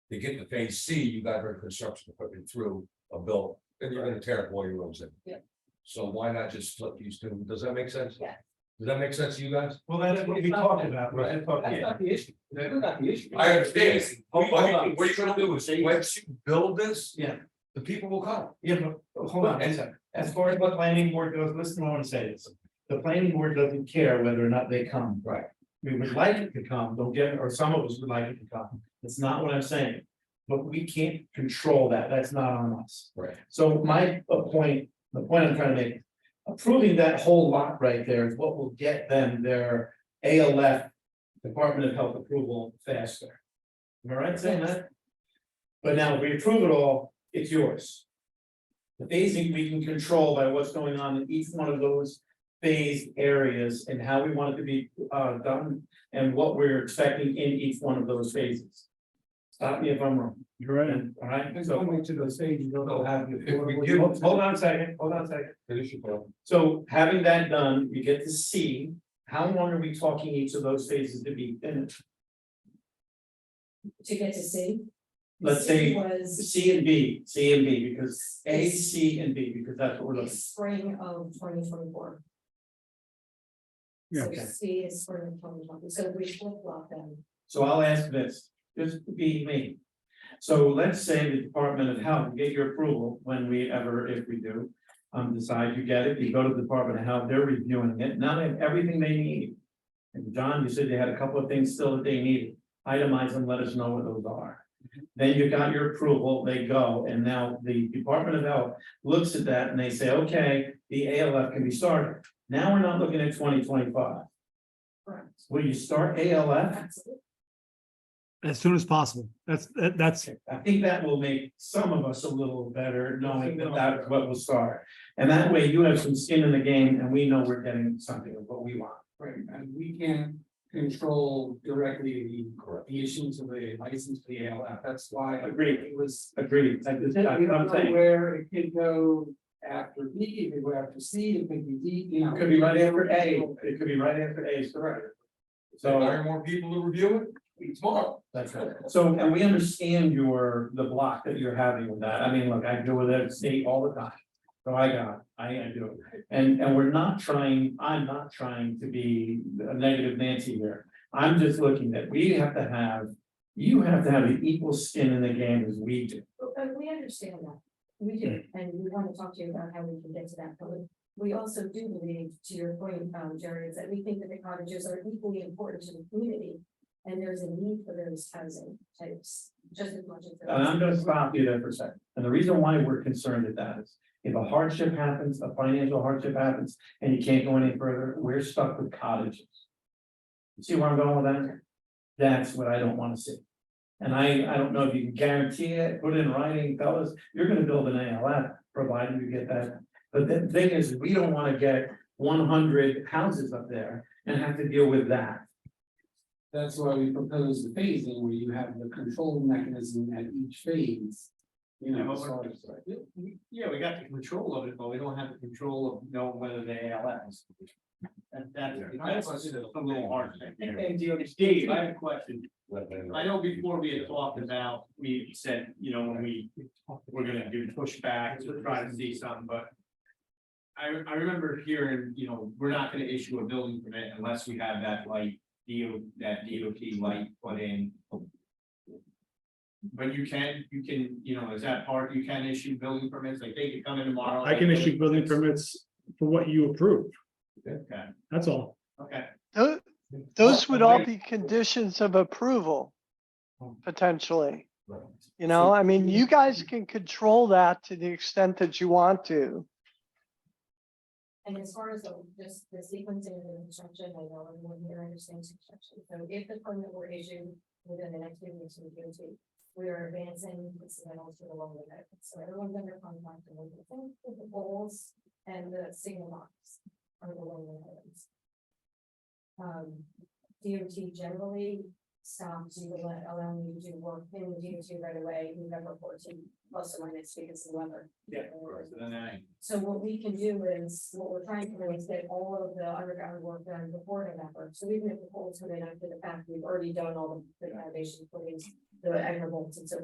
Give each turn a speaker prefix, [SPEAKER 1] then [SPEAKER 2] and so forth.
[SPEAKER 1] to get to phase C, you gotta bring construction equipment through a bill, and you're gonna tear up all your roads in.
[SPEAKER 2] Yeah.
[SPEAKER 1] So why not just split these two, does that make sense?
[SPEAKER 2] Yeah.
[SPEAKER 1] Does that make sense to you guys?
[SPEAKER 3] Well, that's what we talked about, we
[SPEAKER 1] Right.
[SPEAKER 3] talked,
[SPEAKER 2] That's
[SPEAKER 3] yeah,
[SPEAKER 2] not the issue, that's not the issue.
[SPEAKER 1] I understand,
[SPEAKER 2] Hold- hold
[SPEAKER 1] what
[SPEAKER 2] on.
[SPEAKER 1] you- what you're gonna do is, once you build this,
[SPEAKER 3] yeah,
[SPEAKER 1] the people will come.
[SPEAKER 3] yeah, but, oh, hold on, as, as far as what planning board goes, listen, I want to say this. The planning board doesn't care whether or not they come.
[SPEAKER 1] Right.
[SPEAKER 3] We would like it to come, don't get, or some of us would like it to come, that's not what I'm saying. But we can't control that, that's not on us.
[SPEAKER 1] Right.
[SPEAKER 3] So my uh, point, the point I'm trying to make, approving that whole lot right there is what will get them their ALF. Department of Health approval faster. Am I right saying that? But now if we approve it all, it's yours. The phasing we can control by what's going on in each one of those phased areas and how we want it to be uh done. And what we're expecting in each one of those phases. Stop me if I'm wrong.
[SPEAKER 4] You're right.
[SPEAKER 3] And, all right, so.
[SPEAKER 4] to the stage, you
[SPEAKER 1] they'll have you- If we give-
[SPEAKER 3] Hold hold on a second, hold on a second.
[SPEAKER 1] Finish your bill.
[SPEAKER 3] So having that done, we get to see, how long are we talking each of those phases to be finished?
[SPEAKER 5] to get to C.
[SPEAKER 3] Let's say
[SPEAKER 5] Was
[SPEAKER 3] C and B, C and B, because A, C and B, because that's what we're looking.
[SPEAKER 5] spring of twenty twenty four.
[SPEAKER 4] Yeah.
[SPEAKER 5] So C is spring of twenty twenty, so we flip flop them.
[SPEAKER 3] So I'll ask this, just be me. So let's say the Department of Health, get your approval when we ever, if we do. Um, decide you get it, you go to the Department of Health, they're reviewing it, now they have everything they need. And John, you said they had a couple of things still that they needed, itemize them, let us know what those are. Then you got your approval, they go, and now the Department of Health looks at that and they say, okay, the ALF can be started. Now we're not looking at twenty twenty-five,
[SPEAKER 5] Correct.
[SPEAKER 3] will you start ALF?
[SPEAKER 5] Absolutely.
[SPEAKER 4] As soon as possible. That's, that- that's,
[SPEAKER 3] I think that will make some of us a little better knowing that that's what will start. And that way you have some skin in the game and we know we're getting something of what we want.
[SPEAKER 6] Right, and we can't control directly the,
[SPEAKER 1] Correct.
[SPEAKER 6] the issuance of the license to the ALF, that's why.
[SPEAKER 3] Agreed.
[SPEAKER 6] It was.
[SPEAKER 3] Agreed. I just-
[SPEAKER 6] We
[SPEAKER 3] I-
[SPEAKER 6] don't
[SPEAKER 3] I'm
[SPEAKER 6] know
[SPEAKER 3] saying,
[SPEAKER 6] Where it could go after B, it could go after C, it could be D, you know.
[SPEAKER 3] It could be right after A, it could be right after A is correct.
[SPEAKER 1] So
[SPEAKER 3] So
[SPEAKER 1] hire more people to review it tomorrow.
[SPEAKER 3] that's right. So and we understand your, the block that you're having with that. I mean, look, I deal with it at state all the time. So I got, it. I I do. it. And and we're not trying, I'm not trying to be a negative Nancy here. I'm just looking that we have to have, you have to have an equal skin in the game as we do.
[SPEAKER 5] But we understand that, we do, and we want to talk to you about how we can get to that, but we- we also do believe, to your point, um, Jerry, is that we think that the cottages are equally important to the community. And there's a need for those housing types, just as much as. there
[SPEAKER 3] And
[SPEAKER 5] is-
[SPEAKER 3] I'm gonna stop you there for a second. And the reason why we're concerned at that is if a hardship happens, a financial hardship happens, and you can't go any further, we're stuck with cottages. You See where I'm going with that? That's what I don't wanna see. And I, I don't know if you can guarantee it, put it in writing, fellas, you're gonna build an ALF, provided you get that. But the thing is, we don't wanna get one hundred houses up there and have to deal with that.
[SPEAKER 6] That's why we propose the phasing where you have the control mechanism at each phase. You know, as far as.
[SPEAKER 7] Yeah, we got the control of it, but we don't have the control of knowing whether the ALS. And that's, that's a little hard thing. And Dave, I have a question. I know before we had talked about, we said, you know, when we, we're gonna do pushback to try to see something, but. I, I remember hearing, you know, we're not gonna issue a building permit unless we have that light, deal, that DOT light put in. But you can, you can, you know, is that part, you can issue building permits, like they could come in tomorrow.
[SPEAKER 4] I can issue building permits for what you approve.
[SPEAKER 7] Okay,
[SPEAKER 4] That's all.
[SPEAKER 7] okay.
[SPEAKER 8] Tho- Those would all be conditions of approval, potentially. You know, I mean, you guys can control that to the extent that you want to.
[SPEAKER 5] And as far as the, just the sequencing of the construction, I know everyone here understands construction, so if the permit were issued within the next few weeks, we can do. We are advancing incidentals to the long way, so everyone's under contract and we're looking at the goals and the single marks are the long way items. Um, DOT generally stops you to let, allow me to do work in the DOT right away, November fourteen, plus or minus because of the weather.
[SPEAKER 7] Yeah, of course, and then I.
[SPEAKER 5] So what we can do is, what we're trying to do is get all of the underground work done before November, so even if the poles come in after the fact, we've already done all the foundation footings. The aggregates and so